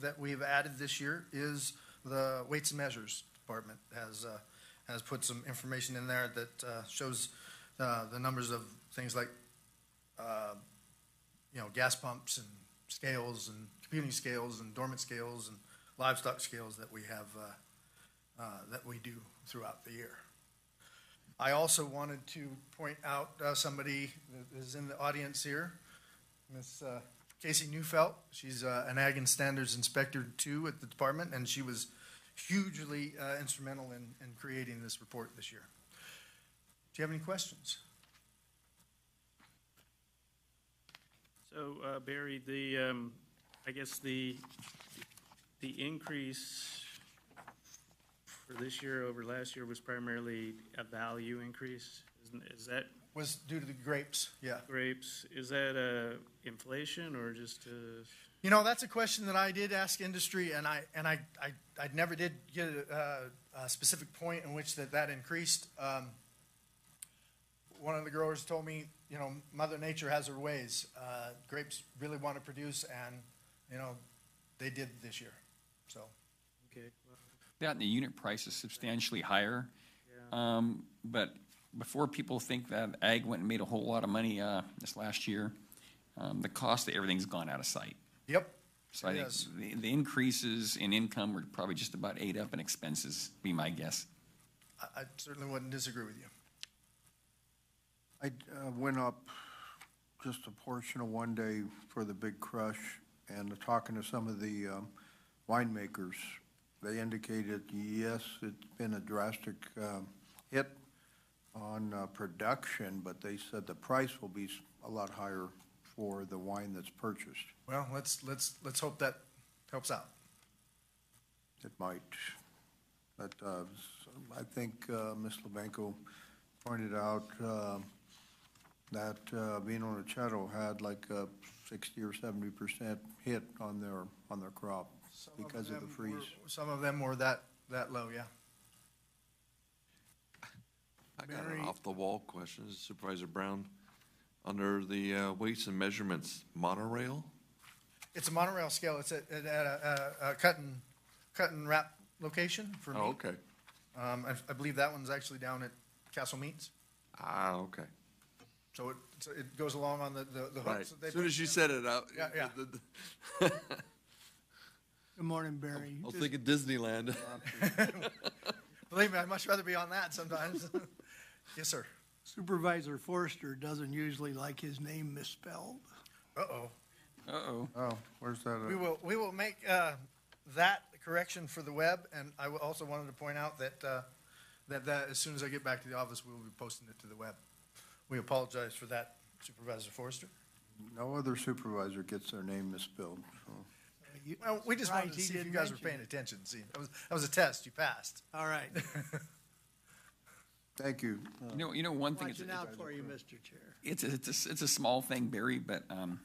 that we've added this year is the Weights and Measures Department has, uh, has put some information in there that, uh, shows, uh, the numbers of things like, uh, you know, gas pumps and scales and computing scales and dormant scales and livestock scales that we have, uh, uh, that we do throughout the year. I also wanted to point out uh, somebody that is in the audience here, Miss uh, Casey Neufeld. She's uh, an Ag and Standards Inspector too at the department, and she was hugely uh, instrumental in, in creating this report this year. Do you have any questions? So uh, Barry, the, um, I guess the, the increase for this year over last year was primarily a value increase? Isn't- Is that Was due to the grapes, yeah. grapes, is that uh, inflation or just uh, You know, that's a question that I did ask industry, and I and I I, I never did get a, a specific point in which that that increased. Um, one of the growers told me, you know, Mother Nature has her ways. Uh, grapes really want to produce, and you know, they did this year. So okay? well, That and the unit price is substantially higher. Uh, Um, But before people think that ag went and made a whole lot of money uh, this last year, um, the cost of everything's gone out of sight. yep, So I It think has. the- the increases in income were probably just about ate up in expenses, be my guess. I, I certainly wouldn't disagree with you. I uh, went up just a portion of one day for the big crush, and talking to some of the um, winemakers, they indicated, yes, it's been a drastic um, hit on uh, production, but they said the price will be s- a lot higher for the wine that's purchased. Well, let's let's let's hope that helps out. It might. But uh, I think uh, Ms. Lebanco pointed out uh, that uh, Vino Ranchero had like a 60 or 70 percent hit on their, on their crop Some because of the them freeze. were- some of them were that that low, yeah. I got Mary- an off-the-wall question, Supervisor Brown. Under the uh, weights and measurements, monorail, It's a monorail scale. It's at, at a, a, a cut and, cut and wrap location for me. oh, okay. Um, I, I believe that one's actually down at Castle Meats. Ah, okay, So it, so it goes along on the, the, the right. hooks that they As Soon put- as you said it out. Yeah, yeah. Good morning, Barry. Oh, I was thinking Disneyland. Believe me, I'd much rather be on that sometimes. Yes, sir. Supervisor Forster doesn't usually like his name misspelled. Uh-oh. Uh-oh. Oh, where's that? We at? will, we will make, uh, that correction for the web. And I wa- also wanted to point out that, uh, that, that as soon as I get back to the office, we will be posting it to the web. We apologize for that Supervisor Forrester. No other supervisor gets their name misspelled. so. Uh, you- Well, we just wanted Surprised to he see if you didn't guys were mention paying attention. See, that was, that was a test. You passed. it. All right, Thank you. You know, you know, one thing, it's, watching out for you, Mr. Chair. it's, it's, a s- it's a small thing, Barry, but um,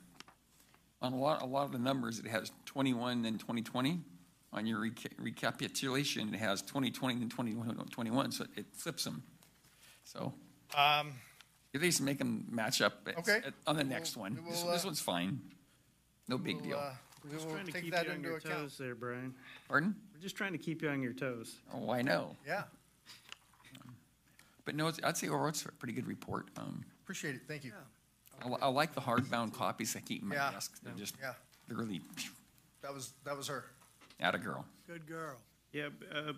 on a lot, a lot of the numbers, it has 21 and 2020. On your reca- recapitulation, it has 2020 and 2021, so it flips them. So Um, at least make them match up at- Okay. at- on the We will- next one. we This will, this uh, one's fine. No big we'll, deal. uh, We Just will trying to take keep that you on into your account. toes There, Brian. Pardon? We're just trying to keep you on your toes. Oh, I know. Yeah, But no, it's- I'd say overall, it's a pretty good report. Um, appreciate it. Thank you. I li- I like the hardbound copies I keep in my Yeah. desk. They're just, Yeah, they're really, that was, that was her. out of girl. Good girl. Yeah, b- uh,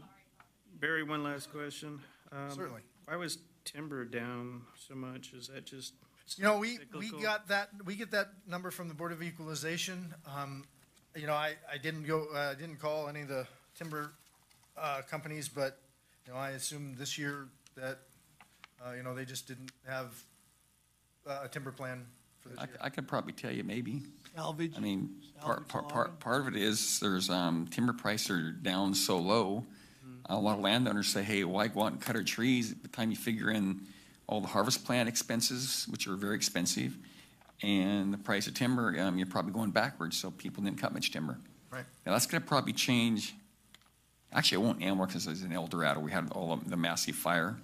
Barry, one last question. Um, Certainly. Why was timber down so much? Is that just You know, we, we Cyclical. got that, we get that number from the Board of Equalization. Um, you know, I, I didn't go, uh, I didn't call any of the timber, uh, companies, but, you know, I assume this year that, uh, you know, they just didn't have uh, a timber plan for this I, year. c- I could probably tell you maybe. Salvage. I mean, part, Salvage part, log. part, part of it is there's, um, timber prices are down so low. A lot of landowners say, hey, why go out and cut our trees? By the time you figure in all the harvest plan expenses, which are very expensive, and the price of timber, um, you're probably going backwards, so people didn't cut much timber. Right. Now, that's gonna probably change. Actually, it won't anymore because it's in El Dorado. We had all of the massive fire.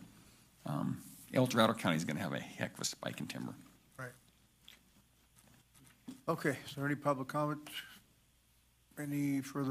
Um, El Dorado County's gonna have a heck of a spike in timber. Right. Okay, is there any public comment? Any further